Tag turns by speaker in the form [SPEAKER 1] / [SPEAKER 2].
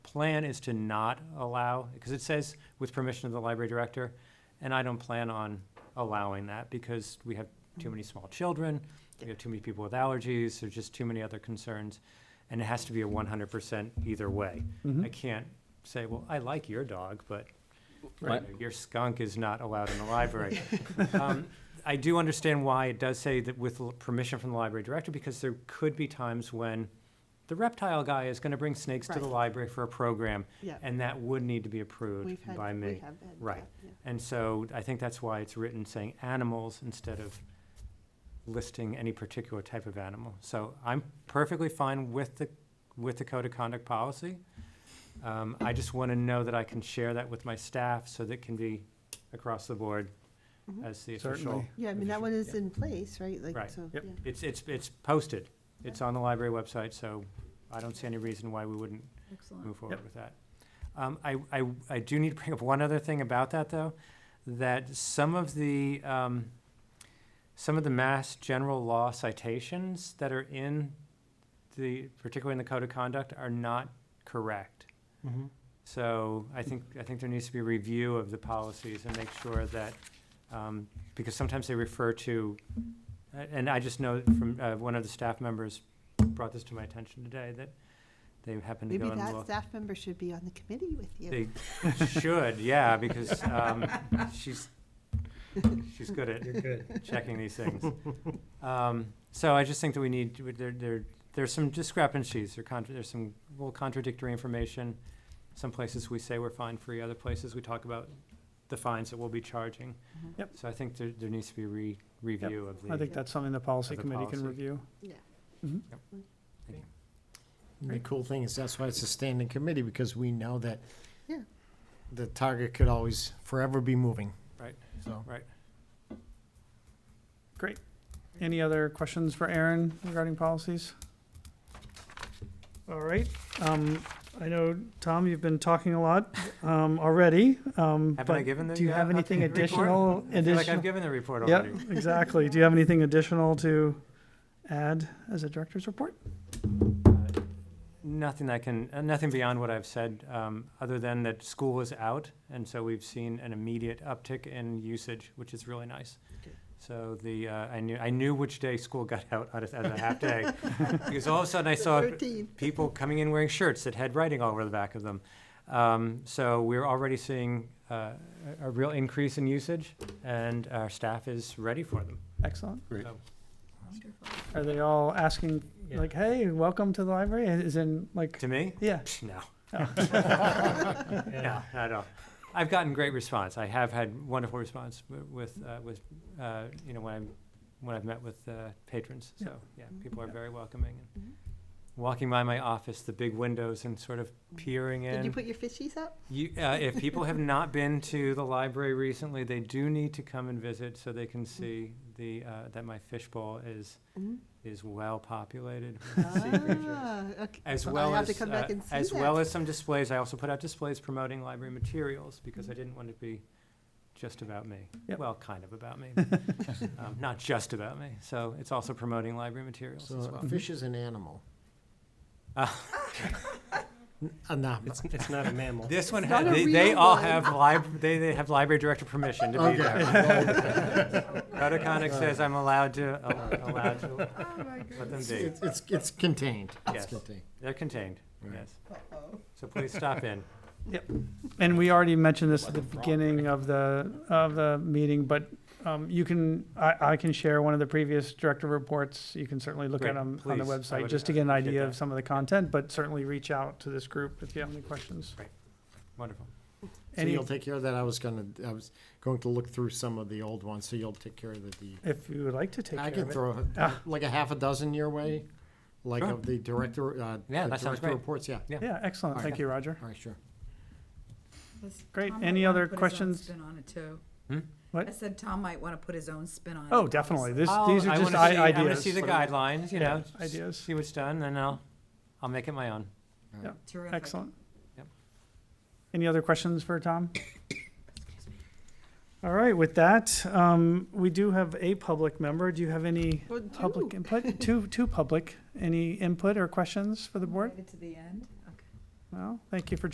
[SPEAKER 1] plan is to not allow, because it says with permission of the library director, and I don't plan on allowing that because we have too many small children, we have too many people with allergies, there's just too many other concerns, and it has to be a one hundred percent either way. I can't say, well, I like your dog, but you
[SPEAKER 2] Right.
[SPEAKER 1] know, your skunk is not allowed in the library. Um, I do understand why it does say that with l- permission from the library director, because there could be times when the reptile guy is gonna bring snakes to the
[SPEAKER 3] Right.
[SPEAKER 1] library for a program,
[SPEAKER 3] Yeah.
[SPEAKER 1] and that would need to be approved
[SPEAKER 3] We've had,
[SPEAKER 1] by
[SPEAKER 3] we
[SPEAKER 1] me.
[SPEAKER 3] have had.
[SPEAKER 1] Right.
[SPEAKER 3] that, yeah.
[SPEAKER 1] And so I think that's why it's written saying animals instead of listing any particular type of animal. So I'm perfectly fine with the, with the code of conduct policy. Um, I just want to know that I can share that with my staff so that it can be across the board
[SPEAKER 3] Mhm.
[SPEAKER 1] as the official.
[SPEAKER 2] Certainly.
[SPEAKER 3] Yeah, I mean, that one is in place, right?
[SPEAKER 1] Right.
[SPEAKER 3] Like, so, yeah.
[SPEAKER 2] Yep.
[SPEAKER 1] It's, it's, it's posted. It's on the library website, so I don't see any reason why we wouldn't
[SPEAKER 4] Excellent.
[SPEAKER 1] move forward with that. Um, I, I, I do need to bring up one other thing about that, though, that some of the, um, some of the mass general law citations that are in the, particularly in the code of conduct, are not correct.
[SPEAKER 5] Mm-hmm.
[SPEAKER 1] So I think, I think there needs to be a review of the policies and make sure that, um, because sometimes they refer to, and I just know from, uh, one of the staff members brought this to my attention today, that they happened to
[SPEAKER 3] Maybe
[SPEAKER 1] go and look.
[SPEAKER 3] that staff member should be on the committee with you.
[SPEAKER 1] They should, yeah, because um, she's, she's good at
[SPEAKER 2] good.
[SPEAKER 1] checking these things. Um, So I just think that we need, to- there, there, there's some discrepancies, or contra, there's some little contradictory information. Some places we say we're fine free, other places we talk about the fines that we'll be charging.
[SPEAKER 3] Mhm.
[SPEAKER 2] Yep.
[SPEAKER 1] So I think there, there needs to be re, review of
[SPEAKER 2] I
[SPEAKER 1] the,
[SPEAKER 2] think that's something the policy
[SPEAKER 1] Of the
[SPEAKER 2] committee can
[SPEAKER 1] policy.
[SPEAKER 2] review.
[SPEAKER 3] Yeah.
[SPEAKER 2] Mhm.
[SPEAKER 6] The cool thing is that's why it's a standing committee, because we know that
[SPEAKER 3] Yeah.
[SPEAKER 6] the target could always forever be moving.
[SPEAKER 1] Right.
[SPEAKER 6] So.
[SPEAKER 1] right?
[SPEAKER 2] Any other questions for Aaron regarding policies?
[SPEAKER 5] All right, um, I know, Tom, you've been talking a lot, um, already, um,
[SPEAKER 1] Haven't I
[SPEAKER 5] but
[SPEAKER 1] given the?
[SPEAKER 5] do you
[SPEAKER 1] uh,
[SPEAKER 5] have anything
[SPEAKER 1] updated report?
[SPEAKER 5] additional?
[SPEAKER 1] I feel like I've
[SPEAKER 5] additional-
[SPEAKER 1] given the report
[SPEAKER 5] Yep,
[SPEAKER 1] already.
[SPEAKER 5] exactly. Do you have anything additional to add as a director's report?
[SPEAKER 1] Uh, Nothing I can, uh, nothing beyond what I've said, um, other than that school is out, and so we've seen an immediate uptick in usage, which is really nice.
[SPEAKER 3] Good.
[SPEAKER 1] So the, uh, I knew, I knew which day school got out on a- as a half day, because all of a sudden I saw
[SPEAKER 3] Thirteen.
[SPEAKER 1] people coming in wearing shirts that had writing all over the back of them. Um, so we're already seeing, uh, a a real increase in usage, and our staff is ready for them.
[SPEAKER 2] Excellent.
[SPEAKER 4] Wonderful.
[SPEAKER 2] Are they all asking,
[SPEAKER 1] Yeah.
[SPEAKER 2] like, hey, welcome to the library? Is in, like,
[SPEAKER 1] To me,
[SPEAKER 2] yeah.
[SPEAKER 1] Psh, No.
[SPEAKER 2] Oh.
[SPEAKER 1] No, not at all. I've gotten great response. I have had wonderful response wi- with, uh, with, uh, you know, when I'm, when I've met with, uh, patrons.
[SPEAKER 2] Yeah.
[SPEAKER 1] So, yeah,
[SPEAKER 3] Mhm.
[SPEAKER 1] people are very welcoming.
[SPEAKER 3] Mhm.
[SPEAKER 1] Walking by my office, the big windows and sort of peering
[SPEAKER 3] Mm-hmm. Did you
[SPEAKER 1] in.
[SPEAKER 3] put your fishies up?
[SPEAKER 1] You, uh, if people have not been to the library recently, they do need to come and visit so they can see the, uh, that my fishbowl is,
[SPEAKER 4] Mm-hmm.
[SPEAKER 3] Mhm.
[SPEAKER 1] is well populated. with sea creatures.
[SPEAKER 3] Ah, okay.
[SPEAKER 1] As
[SPEAKER 3] Well, I
[SPEAKER 1] well
[SPEAKER 3] have
[SPEAKER 1] as,
[SPEAKER 3] to come back
[SPEAKER 1] uh,
[SPEAKER 3] and see
[SPEAKER 1] as
[SPEAKER 3] that.
[SPEAKER 1] well as some displays, I also put out displays promoting library materials, because
[SPEAKER 3] Mm-hmm.
[SPEAKER 1] I didn't want it to be just about me.
[SPEAKER 2] Yep.
[SPEAKER 1] Well, kind of about me, but, um, not just about me, so it's also promoting library materials as
[SPEAKER 6] So
[SPEAKER 1] well.
[SPEAKER 6] a fish is an animal.
[SPEAKER 1] Uh, Ah.
[SPEAKER 6] Uh, no,
[SPEAKER 2] It's not a mammal.
[SPEAKER 1] This one,
[SPEAKER 3] It's
[SPEAKER 1] had-
[SPEAKER 3] not a
[SPEAKER 1] they, they
[SPEAKER 3] real
[SPEAKER 1] all
[SPEAKER 3] one.
[SPEAKER 1] have lib, they, they have library director permission to be
[SPEAKER 6] Okay.
[SPEAKER 1] there.
[SPEAKER 3] Oh,
[SPEAKER 1] Code of conduct says I'm allowed to, allowed to,
[SPEAKER 3] Oh, my
[SPEAKER 1] let them
[SPEAKER 3] goodness.
[SPEAKER 1] be,
[SPEAKER 6] It's, it's, it's contained. It's
[SPEAKER 1] Yes.
[SPEAKER 6] contained.
[SPEAKER 1] they're contained,
[SPEAKER 6] Right.
[SPEAKER 1] yes,
[SPEAKER 3] Uh-oh.
[SPEAKER 1] so please stop in.
[SPEAKER 2] And we already mentioned this at the beginning of the, of the meeting, but um, you can, I, I can share one of the previous director reports. You can certainly look
[SPEAKER 1] Great,
[SPEAKER 2] at them on the
[SPEAKER 1] please. I
[SPEAKER 2] website,
[SPEAKER 1] would
[SPEAKER 2] just to get an
[SPEAKER 1] appreciate
[SPEAKER 2] idea
[SPEAKER 1] that.
[SPEAKER 2] of some of the content, but certainly reach out to this group if you have any questions.
[SPEAKER 1] Wonderful.
[SPEAKER 6] So
[SPEAKER 2] Any-
[SPEAKER 6] you'll take care of that. I was gonna, I was going to look through some of the old ones, so you'll take care of the- the,
[SPEAKER 2] If you would like to take
[SPEAKER 6] I
[SPEAKER 2] care
[SPEAKER 6] can
[SPEAKER 2] of it.
[SPEAKER 6] throw
[SPEAKER 2] Ah.
[SPEAKER 6] like a half a dozen your way, like
[SPEAKER 1] Sure.
[SPEAKER 6] of the director, uh.
[SPEAKER 1] Yeah,
[SPEAKER 6] the
[SPEAKER 1] that sounds
[SPEAKER 6] director
[SPEAKER 1] great.
[SPEAKER 6] Reports, yeah.
[SPEAKER 1] Yeah.
[SPEAKER 2] Yeah, excellent.
[SPEAKER 6] All
[SPEAKER 2] Thank
[SPEAKER 6] right.
[SPEAKER 2] you, Roger.
[SPEAKER 6] All right, sure.
[SPEAKER 4] Was-
[SPEAKER 2] Great.
[SPEAKER 4] Tom
[SPEAKER 2] Any
[SPEAKER 4] might wanna
[SPEAKER 2] other
[SPEAKER 4] put his own
[SPEAKER 2] questions?
[SPEAKER 4] Spin on it too.
[SPEAKER 1] Hmm?
[SPEAKER 2] What?
[SPEAKER 4] I said Tom might want to put his own spin on it.
[SPEAKER 2] Oh, definitely. This, these
[SPEAKER 1] I
[SPEAKER 2] are just
[SPEAKER 1] wanna see-
[SPEAKER 2] i-
[SPEAKER 1] I wanna
[SPEAKER 2] ideas.
[SPEAKER 1] see the guidelines, you know,
[SPEAKER 2] Yeah, Ideas.
[SPEAKER 1] see what's done, then I'll, I'll make it my own.
[SPEAKER 4] Terrific.
[SPEAKER 2] Excellent.
[SPEAKER 1] Yep.
[SPEAKER 2] Any other questions for Tom? All right, with that, um, we do have a public member. Do you have any
[SPEAKER 3] Well,
[SPEAKER 2] public
[SPEAKER 3] two.
[SPEAKER 2] input? Two, two public. Any input or questions for the board?
[SPEAKER 4] Right To the end. Okay.
[SPEAKER 2] Well, thank you for